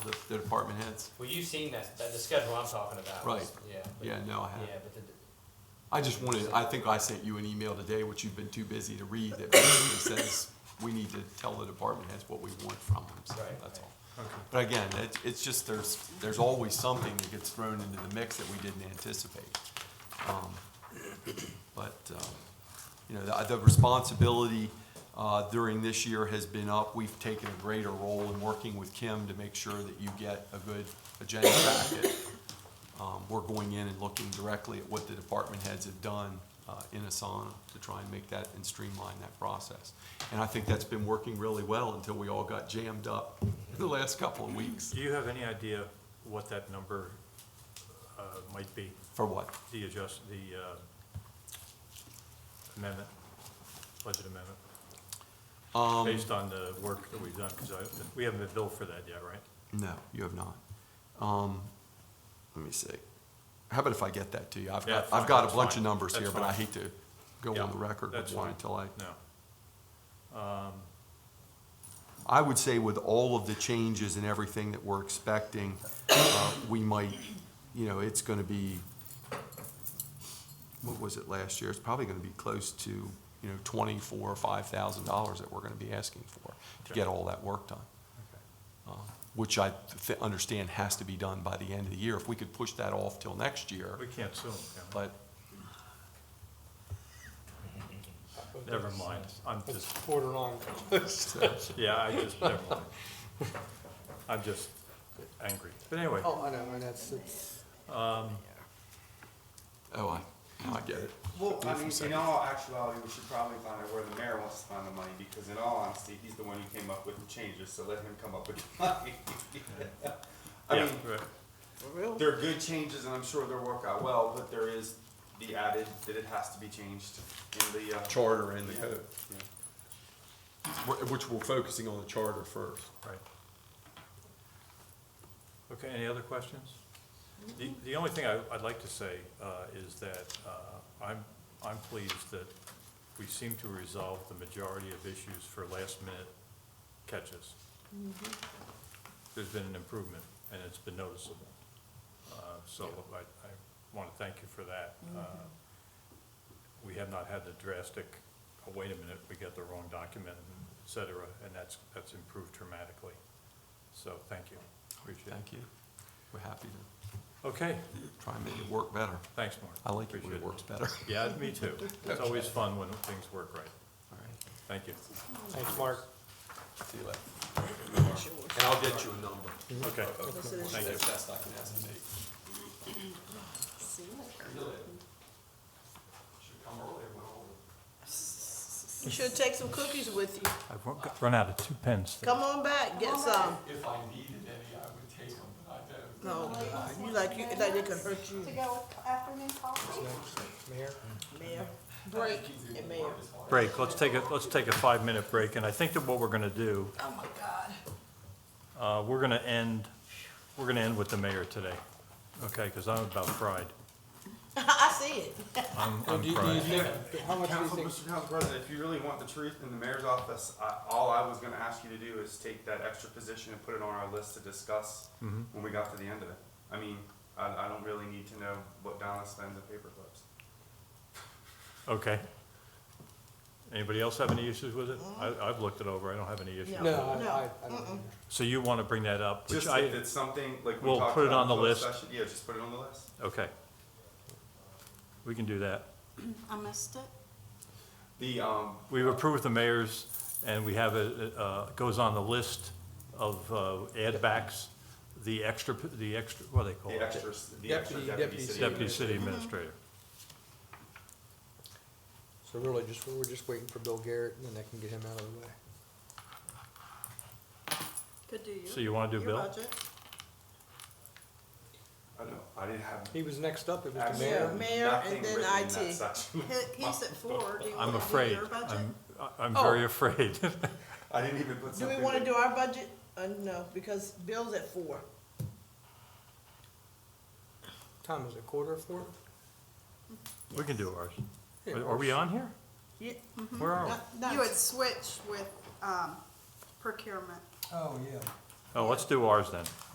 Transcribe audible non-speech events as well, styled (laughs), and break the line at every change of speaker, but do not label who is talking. the department heads?
Well, you've seen that, that, the schedule I'm talking about. was-
Right.
Yeah. but-
Yeah, no, I
Yeah,
have.
but the,
I just wanted, I think I sent you an email today, which you've been too busy to read, that basically says we need to tell the department heads what we want from them, so
Right,
that's all.
right. Okay.
But again, it's, it's just, there's, there's always something that gets thrown into the mix that we didn't anticipate. Um, But, um, you know, the, the responsibility uh, during this year has been up. We've taken a greater role in working with Kim to make sure that you get a good agenda packet. Um, We're going in and looking directly at what the department heads have done uh, in Asana to try and make that and streamline that process. And I think that's been working really well until we all got jammed up (laughs) the last couple of weeks.
Do you have any idea what that number uh, might be,
For what?
the adjust, the uh, amendment, budget amendment?
Um,
Based on the work that we've done, because I, we haven't been billed for that yet, right?
No, you have not. Um, let me see. How about if I get that to you? I've
Yeah,
got,
fine,
I've got a
that's
bunch
fine,
of numbers here,
that's
but I
fine.
hate to go on
Yeah,
the record with
that's
one
fine.
until I.
No.
I would say with all of the changes and everything that we're expecting, uh, we might, you know, it's gonna be, what was it last year? It's probably gonna be close to, you know, twenty-four or five thousand dollars that we're gonna be asking for to
Okay.
get all that work done. uh, which I th- understand has to be done by the end of the year. If we could push that off till next year,
We can't sue them,
but
can we? Never mind, I'm just,
Quarter on.
yeah, I just, never mind. I'm just angry. But anyway,
Oh, I know, and that's, it's.
Oh, I, now I get it.
Well,
Yeah,
I
for
mean, in
seconds.
all actuality, we should probably find out where the mayor wants to find the money, because in all honesty, he's the one who came up with the changes, so let him come up with the (laughs) money. I
yeah,
mean,
right.
they're good changes, and I'm sure they'll work out well, but there is the added that it has to be changed in the, uh.
Charter and
the code. yeah.
Which we're focusing on the charter first.
Right. Okay, any other questions? The, the only thing I, I'd like to say, uh, is that, uh, I'm, I'm pleased that we seem to resolve the majority of issues for last minute catches. There's been an improvement and it's been noticeable. Uh, so I, I wanna thank you for that. Uh, we have not had the drastic, oh, wait a minute, we got the wrong document, et cetera, and that's, that's improved dramatically. So, thank you. Appreciate it.
Thank you. We're happy to
Okay,
try and make it work better.
thanks, Mark.
I like it when it
Appreciate
works better.
Yeah, me too. It's always fun when things work right.
All right,
Thank you.
Thanks, Mark.
see you later. And I'll get you a number.
Okay, thank you.
That's best I can estimate.
See you later.
Should come earlier when all the
You should take some cookies with you.
I've run out of two pens.
Come on back, get some.
If I needed any, I would take them, but I don't.
No, God, you like, you, like they can hurt you.
to go with afternoon coffee?
Mayor?
Mayor, break and mayor.
Break, let's take a, let's take a five-minute break, and I think that what we're gonna do,
Oh, my God.
uh, we're gonna end, we're gonna end with the mayor today. Okay, because I'm about fried.
I see it.
I'm, I'm fried.
How much do you
Council,
think,
Mr. Council President, if you really want the truth in the mayor's office, I, all I was gonna ask you to do is take that extra position and put it on our list to discuss
Mm-hmm.
when we got to the end of it. I mean, I, I don't really need to know what Donna spends at paperclips.
Okay. Anybody else have any issues with it? I, I've looked it over, I don't have any issues.
no, I,
No,
I, I don't.
mm-mm.
either.
So you want to bring that up, which
Just
I,
if it's something, like we
We'll
talked
put it
about
on the
in closed
list.
session, Yeah, just put it on the list.
okay. We can do that.
I missed it.
The, um,
We've approved the mayor's, and we have it, uh, goes on the list of, uh, add backs, the extra, the extra, what do they call
the
it?
extras, the extra
Deputy-
deputy
deputy
city.
Deputy city administrator.
So really, just, we're just waiting for Bill Garrett, and then that can get him out of the way.
Could do you.
So you want to do
Your
Bill?
budget.
I don't know, I didn't have.
He was next up, it was the mayor.
absolutely
Yeah, mayor and
nothing
then
written in that
IT.
section. (laughs)
He- He's at four. Do you
I'm
want to do
afraid,
your budget?
I'm, I- I'm very afraid. (laughs)
I didn't even put
Do
something.
we want to
that-
do our budget? Uh, no, because Bill's at four.
Time is it quarter of four?
We can do ours.
Yeah,
Are- Are we on here?
Yeah.
Where are we?
You would switch with, um, procurement.
Oh, yeah.
Oh, let's do ours then.